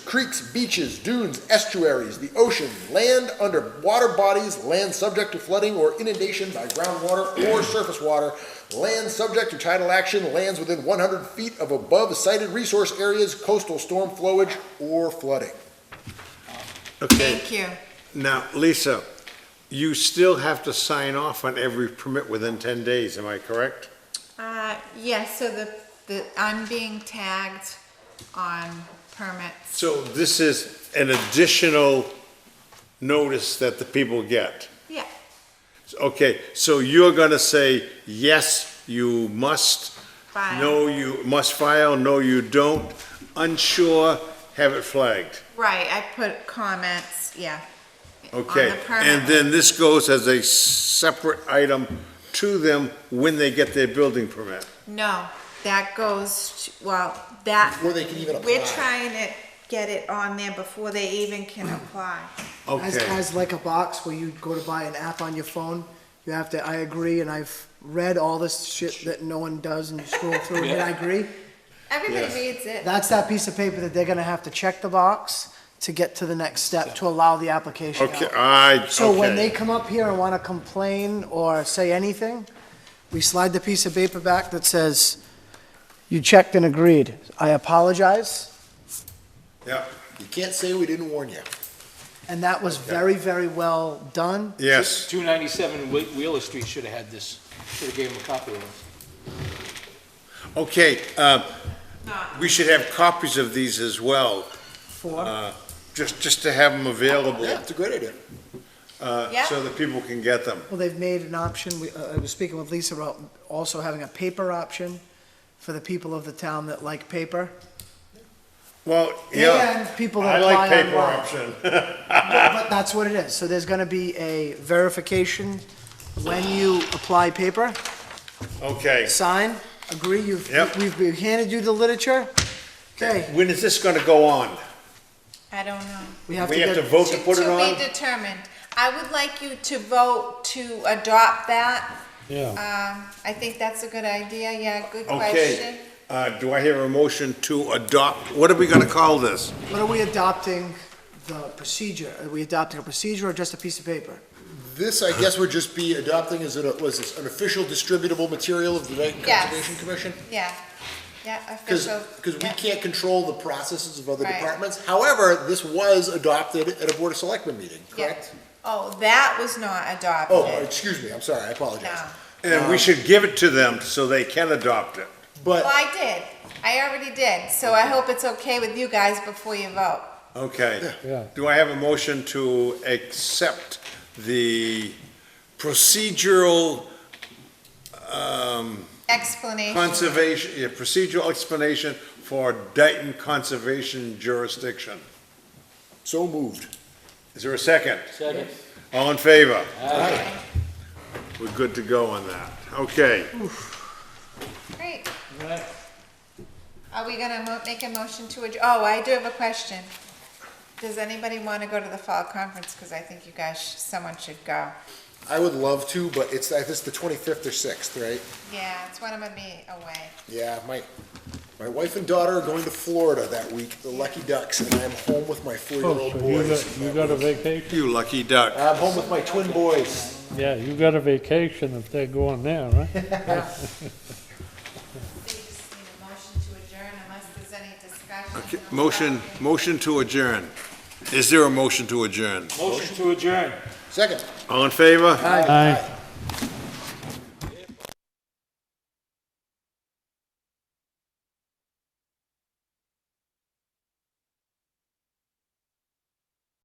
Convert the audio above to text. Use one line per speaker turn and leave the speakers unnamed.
Creeks, beaches, dunes, estuaries, the ocean, land under water bodies, land subject to flooding or inundation by groundwater or surface water, land subject to tidal action, lands within 100 feet of above cited resource areas, coastal storm flowage or flooding.
Okay,
Thank you.
now, Lisa, you still have to sign off on every permit within 10 days, am I correct?
Uh, yes, so the, the, I'm being tagged on permits.
So this is an additional notice that the people get.
Yeah,
Okay, so you're gonna say, yes, you must.
File.
No, you must file, no, you don't. Unsure, have it flagged.
right, I put comments, yeah.
Okay,
On the permit.
and then this goes as a separate item to them when they get their building permit.
No, that goes, to- well, that.
Before they can even
We're
apply.
trying to get it on there before they even can
Mm.
apply.
As,
Okay,
as like a box where you go to buy an app on your phone, you have to, I agree, and I've read all this shit that no one does and you scroll through and I agree.
Everybody
Yes.
reads it.
That's that piece of paper that they're gonna have to check the box to get to the next step to allow the application
okay,
out.
I,
So when they
okay.
come up here and wanna complain or say anything, we slide the piece of paper back that says, you checked and agreed. I apologize.
Yeah,
You can't say we didn't warn you.
And that was very, very well done.
yes,
297 Whe- Wheeler Street should have had this, should have gave him a copy of it.
okay, uh,
Not-
we should have copies of these as well,
Four.
just, just to have them available,
Yeah, it's a great idea.
uh,
Yeah.
so that people can get them.
Well, they've made an option, we, uh, I was speaking with Lisa about also having a paper option for the people of the town that like paper.
Well, yeah.
And people
I
that
like
apply
paper
online.
option.
But that's what it is, so there's gonna be a verification when you apply paper,
Okay,
sign, agree, you've,
Yep.
we've we've handed you the literature. Okay,
when is this gonna go on?
I don't know.
we have to
We have to
get,
vote to put it
To
on?
be determined. I would like you to vote to adopt that. Yeah. Um, I think that's a good idea, yeah, good question.
Okay, uh, do I hear a motion to adopt, what are we gonna call this?
what are we adopting the procedure? Are we adopting a procedure or just a piece of paper?
This, I guess, would just be adopting as an, was this, an official distributable material of the Dayton
Yes.
Conservation Commission?
Yeah, yeah,
Because,
official.
we
yeah.
can't control the processes of other
Right.
departments. However, this was adopted at a Board of Selectmen meeting,
Yeah.
correct?
Oh, that was not adopted.
Oh, excuse me, I'm sorry, I apologize.
No.
And
Uh,
we should give it to them so they can adopt it.
Well,
But,
I did. I already did, so I hope it's okay with you guys before you vote.
Okay. Do I have a motion to accept the procedural um,
Explanation.
conservation, yeah, procedural explanation for Dayton Conservation Jurisdiction?
so moved.
Is there a second?
Second.
All in favor? We're good to go on that. Okay.
Great. Are we gonna mo- make a motion to adj, oh, I do have a question. Does anybody wanna go to the fall conference? Cause I think you guys, sh- someone should go.
I would love to, but it's, I think it's the twenty-fifth or sixth, right?
Yeah, it's when I'm gonna be away.
Yeah, my, my wife and daughter are going to Florida that week, the Lucky Ducks, and I'm home with my
Oh,
four-year-old
so you
boys.
got, you got a vacation?
You lucky duck.
I'm home with my twin boys.
Yeah, you got a vacation if they're going there, right?
They just need a motion to adjourn unless there's any
Okay,
discussion.
Motion, motion to adjourn. Is there a motion to adjourn?
Motion to adjourn.
Second.
All in favor?
Aye.